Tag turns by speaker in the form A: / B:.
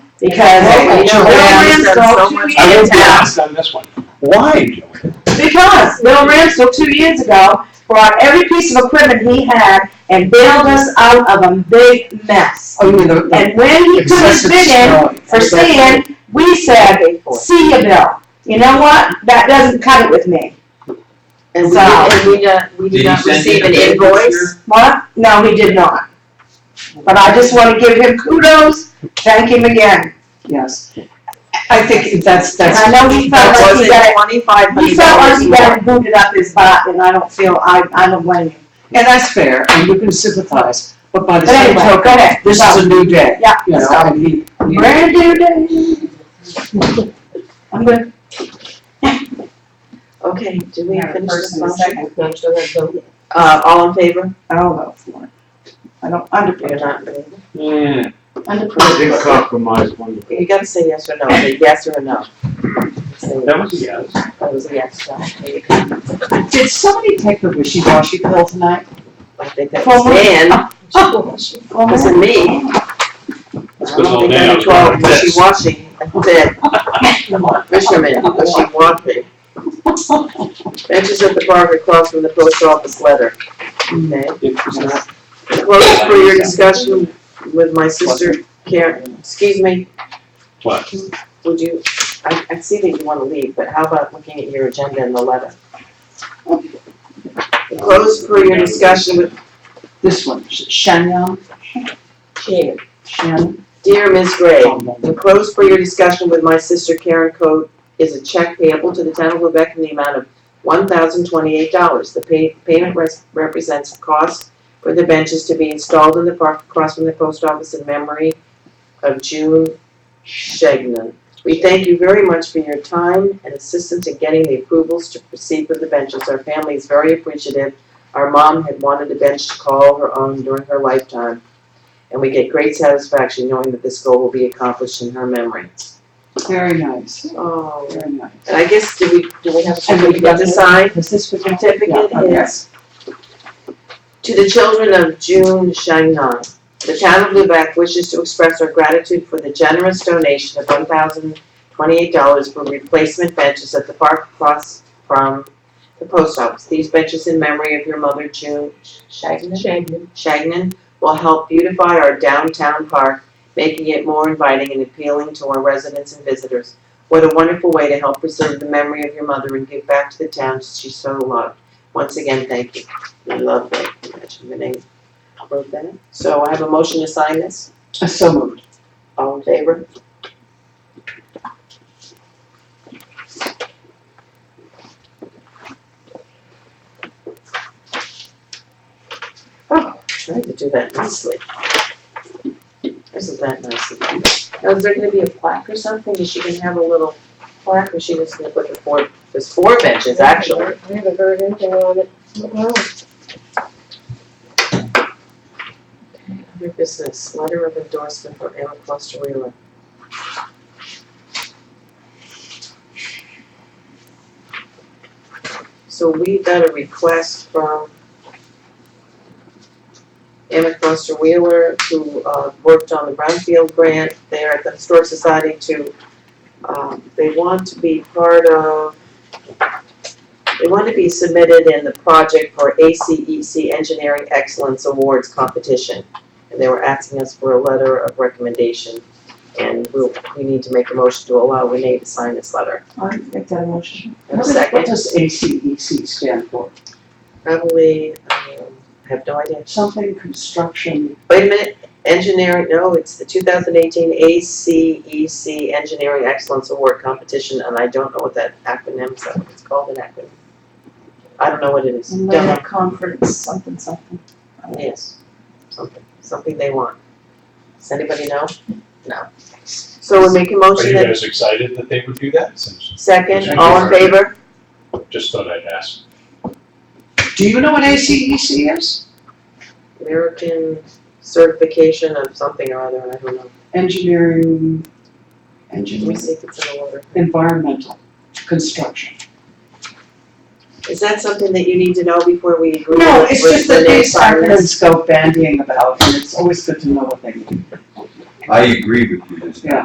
A: Because,
B: Okay,
A: you know,
B: Joanne
A: Bill
B: said
A: Ramsdale
B: so
A: two
B: much-
C: I
A: years
C: will be
A: ago,
C: honest on this one. Why, Joanne?
A: because Bill Ramsdale two years ago brought every piece of equipment he had and bailed us out of a big mess.
B: Oh, you mean the- the
A: And when he put his
B: excessive
A: bid in
B: snow.
A: for sand, we said, see you, Bill. You know what? That doesn't cut it with me.
B: And we,
A: So-
B: and we, uh, we
D: Did
B: did
D: he
B: not
D: send you
B: receive an
D: the bill this
B: invoice.
A: What? No, he did not. But I just want to give him kudos, thank him again.
B: Yes. I think that's,
A: And
B: that's.
A: I know he felt
B: That
A: like he got,
B: wasn't twenty-five
A: he
B: hundred
A: felt like
B: dollars
A: he
B: more.
A: got booted up his butt, and I don't feel, I, I don't blame him.
B: And that's fair, and you can sympathize, but by the
A: But
B: same
A: anyway,
B: token,
A: go ahead.
B: this is a new day,
A: Yeah,
B: you know,
A: so,
B: and he, he-
A: brand new day. I'm good.
B: Okay, do we
E: We have a
B: finish
E: first
B: this
E: and a
B: motion?
E: second. Don't show that vote.
B: Uh, all in favor?
A: I don't know, Florence. I don't,
B: You're
A: underpay,
B: not, really.
C: Yeah. They
A: underpay.
C: compromised one.
B: you gotta say yes or no, say yes or no. Say
C: That was a yes.
B: yes. That was a yes, no.
F: Did somebody take her wishy-washy pill tonight?
B: I think that
A: Well,
B: was
A: we-
B: Dan, wasn't me.
C: It's
B: I
C: been
B: don't
C: all
B: think
C: day, I
B: I
C: was
B: control
C: like this.
B: wishy-washy, that's it. Fisherman, wishy-washy. Benches at the bar across from the post office letter. Okay.
C: It was not-
B: Close for your discussion with my sister Karen, excuse me,
C: What?
B: would you, I, I see that you wanna leave, but how about looking at your agenda and the letter? Close for your discussion with,
F: This one, Sh- Shannon,
B: Karen.
F: Shannon.
B: dear Ms. Gray, Enclosed for your discussion with my sister Karen Code is a check payable to the town of Quebec in the amount of one thousand twenty-eight dollars. The pay, payment res- represents cost for the benches to be installed in the park across from the post office in memory of June Shagnon. We thank you very much for your time and assistance in getting the approvals to proceed with the benches. Our family is very appreciative. Our mom had wanted a bench to call her own during her lifetime and we get great satisfaction knowing that this goal will be accomplished in her memory.
F: Very nice,
B: Oh.
F: very nice.
B: And I guess, do we, do we have a
F: And we
B: certificate to
F: got-
B: sign?
F: Is this what you
B: Certificate
F: Yeah, okay.
B: is to the children of June Shangnan. The town of Lubec wishes to express our gratitude for the generous donation of one thousand twenty-eight dollars for replacement benches at the park across from the post office. These benches in memory of your mother, June Shagnon?
E: Shagman.
B: Shagnon will help beautify our downtown park, making it more inviting and appealing to our residents and visitors. What a wonderful way to help preserve the memory of your mother and give back to the town she so loved. Once again, thank you. I love that. Imagine the name. wrote that. So I have a motion to sign this.
F: Uh, So moved.
B: All in favor? Oh, tried to do that nicely. Isn't that nice of you? Now, is there gonna be a plaque or something? Is she gonna have a little plaque or is she just gonna put the four, there's four benches actually?
E: I haven't heard anything on it. Well,
B: Other business, letter of endorsement for Emma Foster Wheeler. So we got a request from Emma Foster Wheeler, who uh, worked on the Brownfield grant there at the Historic Society to, um, they want to be part of, they want to be submitted in the project for ACEC Engineering Excellence Awards competition. And they were asking us for a letter of recommendation. And we'll, we need to make a motion to allow Renee to sign this letter.
F: I make that motion.
B: Have a E
F: What
B: second?
F: does ACEC stand for?
B: Probably, um, I have no idea.
F: Something construction,
B: Wait a minute, engineering, no, it's the two thousand eighteen ACEC Engineering Excellence Award Competition, and I don't know what that acronym, so it's called an acronym. I don't know what it is, don't know,
F: conference, something, something.
B: yes, something, something they want. Does anybody know? No. So we're making
C: Are
B: motion
C: you
B: then,
C: guys excited that they would do that? Since-
B: second, all in
C: Thank you.
B: favor?
C: Just thought I'd ask.
F: Do you know what
B: E
F: ACEC is?
B: American certification of something or other, I don't know,
F: Engineering,
B: let me
F: engineering,
B: see if it's in the letter.
F: environmental, construction.
B: Is that something that you need to know before we agree with
F: No, it's just
B: with
F: that they
B: Renee's
F: start
B: comments?
F: and go bandying about, and it's always good to know what they mean.
D: I agree with you, there's no